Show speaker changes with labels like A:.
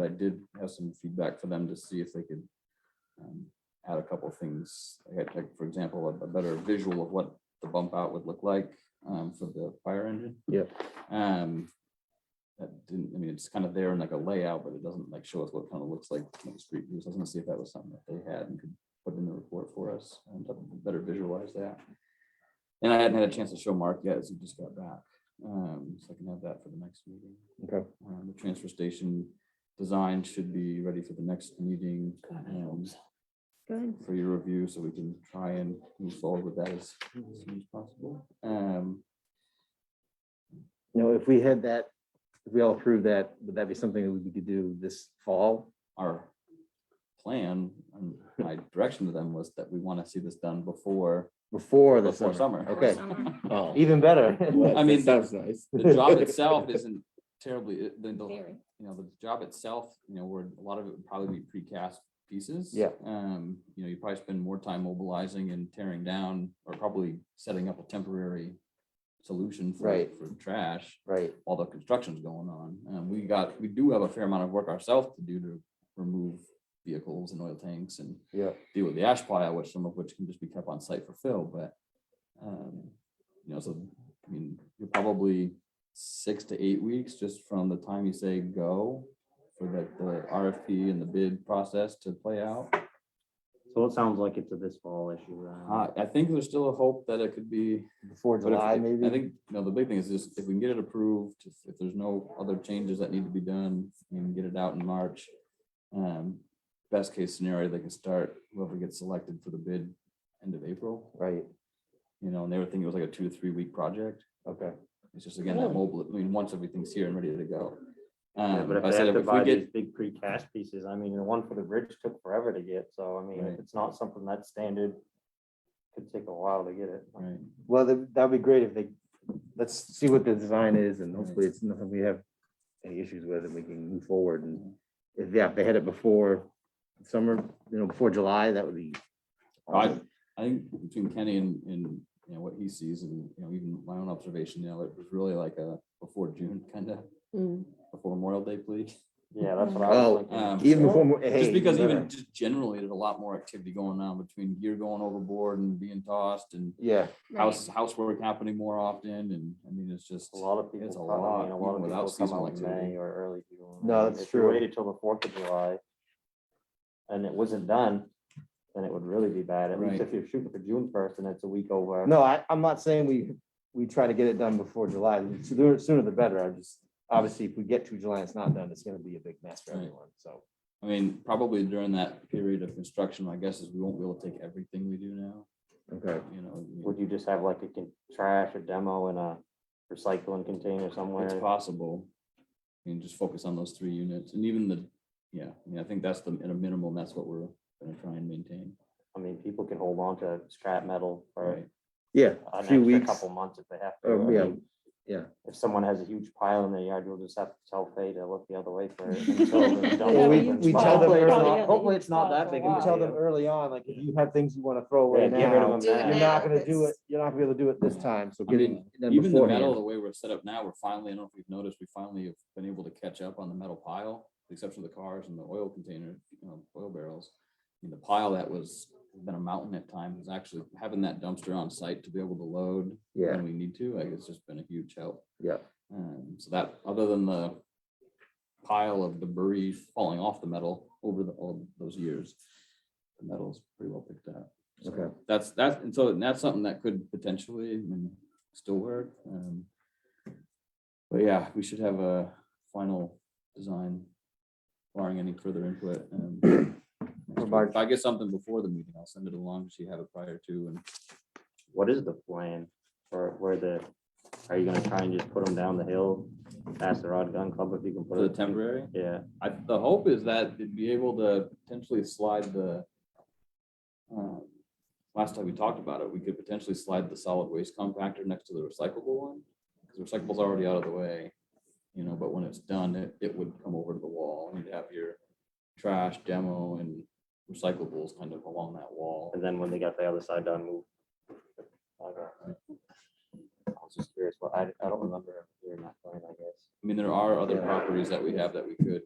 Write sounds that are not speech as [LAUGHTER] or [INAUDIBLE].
A: I did have some feedback for them to see if they could um, add a couple of things, like, like, for example, a- a better visual of what the bump out would look like um, for the fire engine.
B: Yep.
A: Um, that didn't, I mean, it's kind of there in like a layout, but it doesn't like show us what kind of looks like from the street views. I was gonna see if that was something that they had and could put in the report for us and to better visualize that. And I hadn't had a chance to show Mark yet, as he just got back, um, so I can have that for the next meeting.
B: Okay.
A: Um, the transfer station design should be ready for the next meeting. um,
C: Good.
A: for your review, so we can try and move forward with that as
B: Mm-hmm.
A: soon as possible. Um,
B: You know, if we had that, if we all approved that, would that be something that we could do this fall?
A: our plan and
B: [LAUGHS]
A: my direction to them was that we want to see this done before
B: Before the
A: Before
B: summer?
A: summer.
B: Okay,
C: Summer.
D: Oh.
B: [LAUGHS] even
A: [LAUGHS]
B: better.
D: well,
A: I mean,
D: that Sounds nice.
A: the
B: [LAUGHS]
A: job itself isn't terribly, the, the,
C: Very.
A: you know, the job itself, you know, where a lot of it would probably be precast pieces.
B: Yeah.
A: Um, you know, you probably spend more time mobilizing and tearing down or probably setting up a temporary solution for,
B: Right.
A: for trash.
B: Right,
A: while the construction's going on. Um, we got, we do have a fair amount of work ourselves to do to remove vehicles and oil tanks and
B: yeah,
A: deal with the ash pile, which some of which can just be kept on site for fill, but um, you know, so, I mean, you're probably six to eight weeks just from the time you say go for that, the RFP and the bid process to play out.
E: So it sounds like it's a this fall issue. then.
A: Uh, I think there's still a hope that it could be
B: before
A: but if-
B: July,
A: if-
B: maybe?
A: I think, no, the big thing is just if we can get it approved, if- if there's no other changes that need to be done, we can get it out in March. Um, best case scenario, they can start whoever gets selected for the bid end of April,
B: Right,
A: you know, and they were thinking it was like a two to three week project.
B: okay.
A: It's just again, that mobile, I mean, once everything's here and ready to go.
E: Yeah,
A: Um,
E: But if
A: I
E: they
A: said
E: have to
A: if we
E: buy these
A: get,
E: big precast pieces, I mean, the one for the bridge took forever to get, so I mean,
A: Right.
E: if it's not something that's standard, could take a while to get it.
A: right,
B: Well, that- that'd be great if they, let's see what the design is and hopefully it's nothing we have any issues with and we can move forward and if, yeah, if they had it before summer, you know, before July, that would be.
A: I,
B: awesome.
A: I think between Kenny and, and, you know, what he sees and, you know, even my own observation, you know, it was really like a before June kind of,
C: Mm.
A: before Memorial Day, please.
E: Yeah, that's what I
B: Oh,
E: was
A: um,
E: thinking.
B: Even before. mo- hey,
A: Just because
B: better.
A: even just generally, there's a lot more activity going on between gear going overboard and being tossed and
B: Yeah,
A: house, housework happening more often. And I mean, it's just,
E: A lot of people,
A: It's a
E: come- I mean, a
A: lot,
E: lot
A: even
E: of
A: without
E: people come
A: seasonal
E: out in
A: activity.
E: May or early June.
B: No,
E: I mean,
B: that's
E: if you
B: true.
E: Waited till the Fourth of July. And it wasn't done, then it would really be bad. At
A: Right.
E: least if you're shooting for June first and it's a week over.
B: no, I, I'm not saying we, we try to get it done before July, The sooner, sooner the better, I just, obviously, if we get to July, and it's not done, it's gonna be a big mess for
A: Right.
B: everyone, so.
A: I mean, probably during that period of construction, my guess is we won't be able to take everything we do now,
B: Okay.
A: you know. I mean,
E: Would you just have like a con- trash or demo in a recycling container somewhere?
A: It's possible. You can just focus on those three units and even the, yeah, I mean, I think that's the, at a minimum, that's what we're gonna try and maintain.
E: I mean, people can hold on to scrap metal for
A: Right,
B: Yeah, a
E: an
B: few
E: extra
B: weeks.
E: couple months if they have to.
B: Oh,
E: I
B: yeah.
E: mean, If someone has a huge pile in their yard, you'll just have to tell Fay to look the other way for it. [LAUGHS] until the dump
B: Well, we,
E: opens.
B: we tell them
E: Probably
B: early
E: not.
B: on, hopefully it's not
C: spot
B: that
C: for a
B: big, we tell them early on, like, if you have things you wanna throw away
E: Yeah, get rid of
B: now,
E: them
C: Do it
E: now.
B: you're not gonna do it,
C: That's-
B: you're not gonna be able to do it this time, so
A: I
B: get it
A: mean,
B: done
A: Even the metal, the
B: beforehand.
A: way we're set up now, we're finally, I don't know if you've noticed, we finally have been able to catch up on the metal pile, with the exception of the cars and the oil container, you know, oil barrels. I mean, the pile that was, been a mountain at times, is actually having that dumpster on site to be able to load
B: Yeah,
A: when we need to, like, it's just been a huge help.
B: yeah,
A: Um, so that, other than the pile of debris falling off the metal over the, all those years, the metal's pretty well picked up. So
B: Okay.
A: That's, that's, and so that's something that could potentially I mean, still work. um, But yeah, we should have a final design barring any further input.
B: [CLEARS THROAT]
A: um, next week. If I get something before the meeting, I'll send it along, so you have it prior to and
E: What is the plan for where the, are you gonna try and just put them down the hill past the Rod Gun Club if you can put
A: for
E: it?
A: the temporary.
E: Yeah,
A: I, the hope is that they'd be able to potentially slide the. uh, Last time we talked about it, we could potentially slide the solid waste compactor next to the recyclable one, because recyclable's already out of the way. You know, but when it's done, it, it would come over to the wall, and you'd have your trash demo and recyclables kind of along that wall.
E: and then when they got the other side done, move. I don't know. I was just curious, well, I, I don't remember hearing that plan, I guess.
A: I mean, there are other
B: Yeah.
A: properties that we have that we could